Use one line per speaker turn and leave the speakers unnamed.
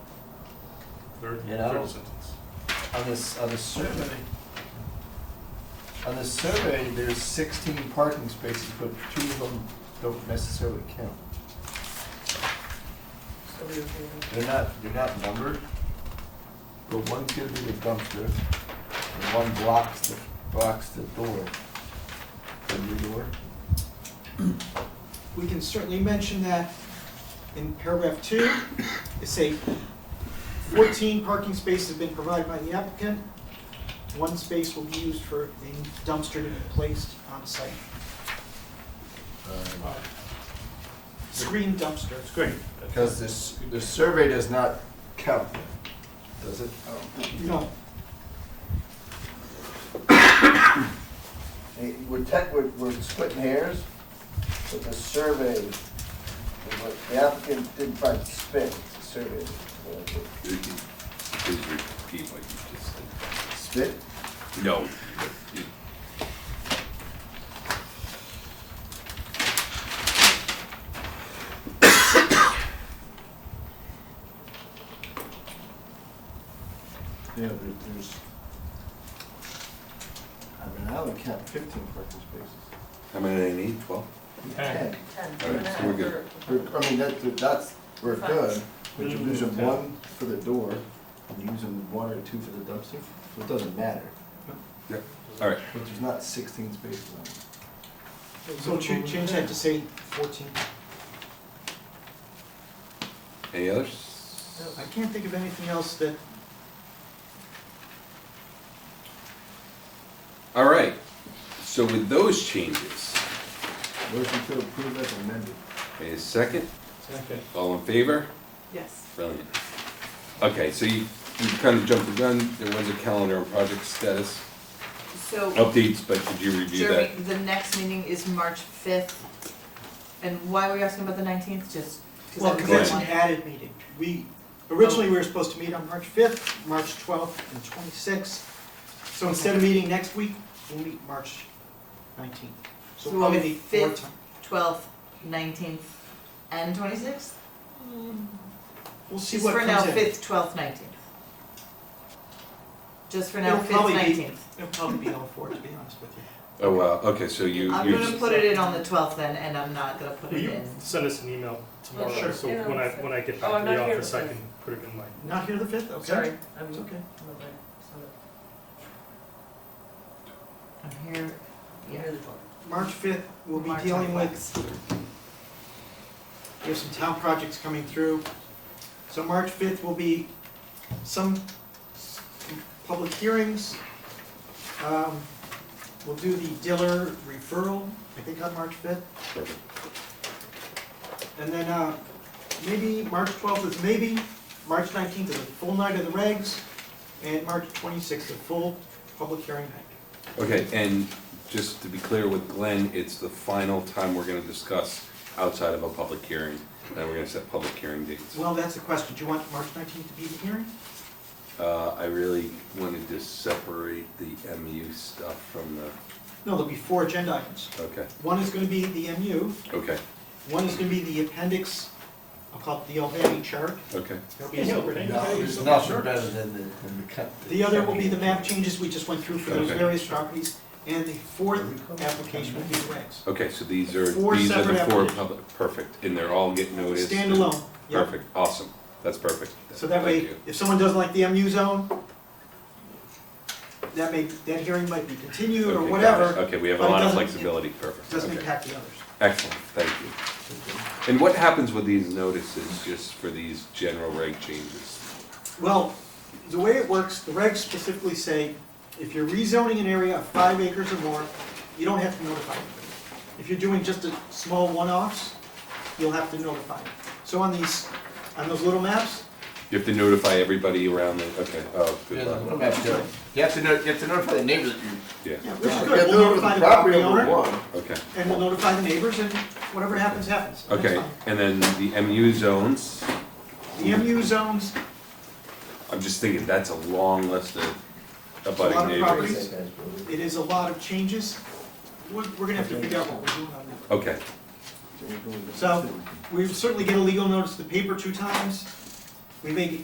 third,
You know?
third sentence.
On this, on the survey, on the survey, there's sixteen parking spaces, but two of them don't necessarily count. They're not, they're not numbered, but one's gonna be the dumpster, and one blocks the, blocks the door, the new door.
We can certainly mention that in paragraph two, it say fourteen parking spaces have been provided by the applicant. One space will be used for a dumpster to be placed on site.
uh,
Screen dumpster.
That's great.
Because this, the survey does not count, does it?
No,
Hey, We're tech, we're, we're splitting hairs, but the survey, the- what the applicant didn't try to spit, the survey. uh,
Please repeat what you just
Spit?
said. No. you-
Yeah, there, there's. I mean, I only count fifteen parking spaces.
How many do they need, twelve?
Ten.
Ten,
All right, so we're good.
We're- I mean, that, that's, we're good, but you're using
Ten.
one for the door, and you're using one or two for the dumpster, so it doesn't matter.
Yep, all right.
But there's not sixteen spaces on it.
so cha- change that to say fourteen.
Any others?
I can't think of anything else that
All right, so with those changes,
Motion to approve as amended.
a second,
Second.
all in favor?
Yes.
Brilliant. Okay, so you, you kind of jumped the gun, there was a calendar and project status
So,
updates, but did Oh, you review that?
Jeremy, the next meeting is March fifth, and why were you asking about the nineteenth, just?
Well, because
Go
that's an
ahead.
added meeting. We, originally, we were supposed to meet on March 5th, March 12th, and 26th. So instead of meeting next week, we'll meet March 19th.
So
So we'll probably
on the
meet four
5th?
times.
Twelfth, nineteenth, and twenty-sixth?
We'll see
Just
what
for now,
comes in.
fifth, twelfth, nineteenth. Just for now,
It'll
fifth,
probably be-
nineteenth.
It'll probably be all four, to be honest with you.
Oh, wow, okay, so you,
I'm
you,
gonna put it in on the twelfth then, and I'm not gonna put
Will
it
you
in.
send us an email tomorrow,
Oh, sure.
so
Yeah,
when I,
I'll-
when I get
Oh,
back
I'm
to the
not here
office,
the
I can
fifth.
put it in my.
Not here the 5th, okay?
Sorry, I'm,
It's okay.
I'm over it.
I'm here, yeah.
March 5th, we'll be
March
dealing with,
12th.
we have some town projects coming through. So March 5th will be some s- public hearings. Um, We'll do the Diller referral, I think on March 5th. And then uh, maybe March 12th is maybe, March 19th is a full night of the regs, and March 26th is a full public hearing night.
okay, and just to be clear with Glenn, it's the final time we're gonna discuss outside of a public hearing, and we're gonna set public hearing dates.
Well, that's the question, do you want March 19th to be the hearing?
Uh, I really wanted to separate the MU stuff from the,
No, there'll be four agenda items.
okay,
One is gonna be the MU,
okay,
one is gonna be the appendix, I'll call it the Albany chart.
okay.
There'll be a separate-
No, there's nothing better than the, than the cut.
The other will be the map changes we just went through for those
Okay.
various properties, and the fourth application will be the regs.
Okay, so these are,
Four
these are the
separate
four
applications.
public, perfect, and they're all getting noticed? and-
Standalone, yeah.
Perfect, awesome, that's perfect.
So that
Thank
way,
you.
if someone doesn't like the MU zone, that may, that hearing might be continued or
Okay, got it.
whatever,
Okay, we have a
but it
lot of
doesn't-
flexibility, perfect,
doesn't
okay,
impact the others.
excellent, thank you. And what happens with these notices, just for these general reg changes?
Well, the way it works, the regs specifically say, if you're rezoning an area of five acres or more, you don't have to notify them. If you're doing just a small one-offs, you'll have to notify them. So on these, on those little maps,
You have to notify everybody around the, okay, oh,
Yeah,
good
the little
luck.
map does. You have to know, you have to notify the neighbors that you.
Yeah,
yeah, which
You
is good,
have to
we'll notify the property
number
owner,
one.
okay.
and we'll notify the neighbors, and whatever happens, happens. That's
Okay,
fine.
and then the MU zones,
The MU zones,
I'm just thinking, that's a long list of
It's a lot
abutting
of
neighbors.
properties.
Same as before.
it is a lot of changes, we're, we're gonna have to figure out what we're doing on that.
Okay,
So, We certainly get a legal notice to the paper two times. We may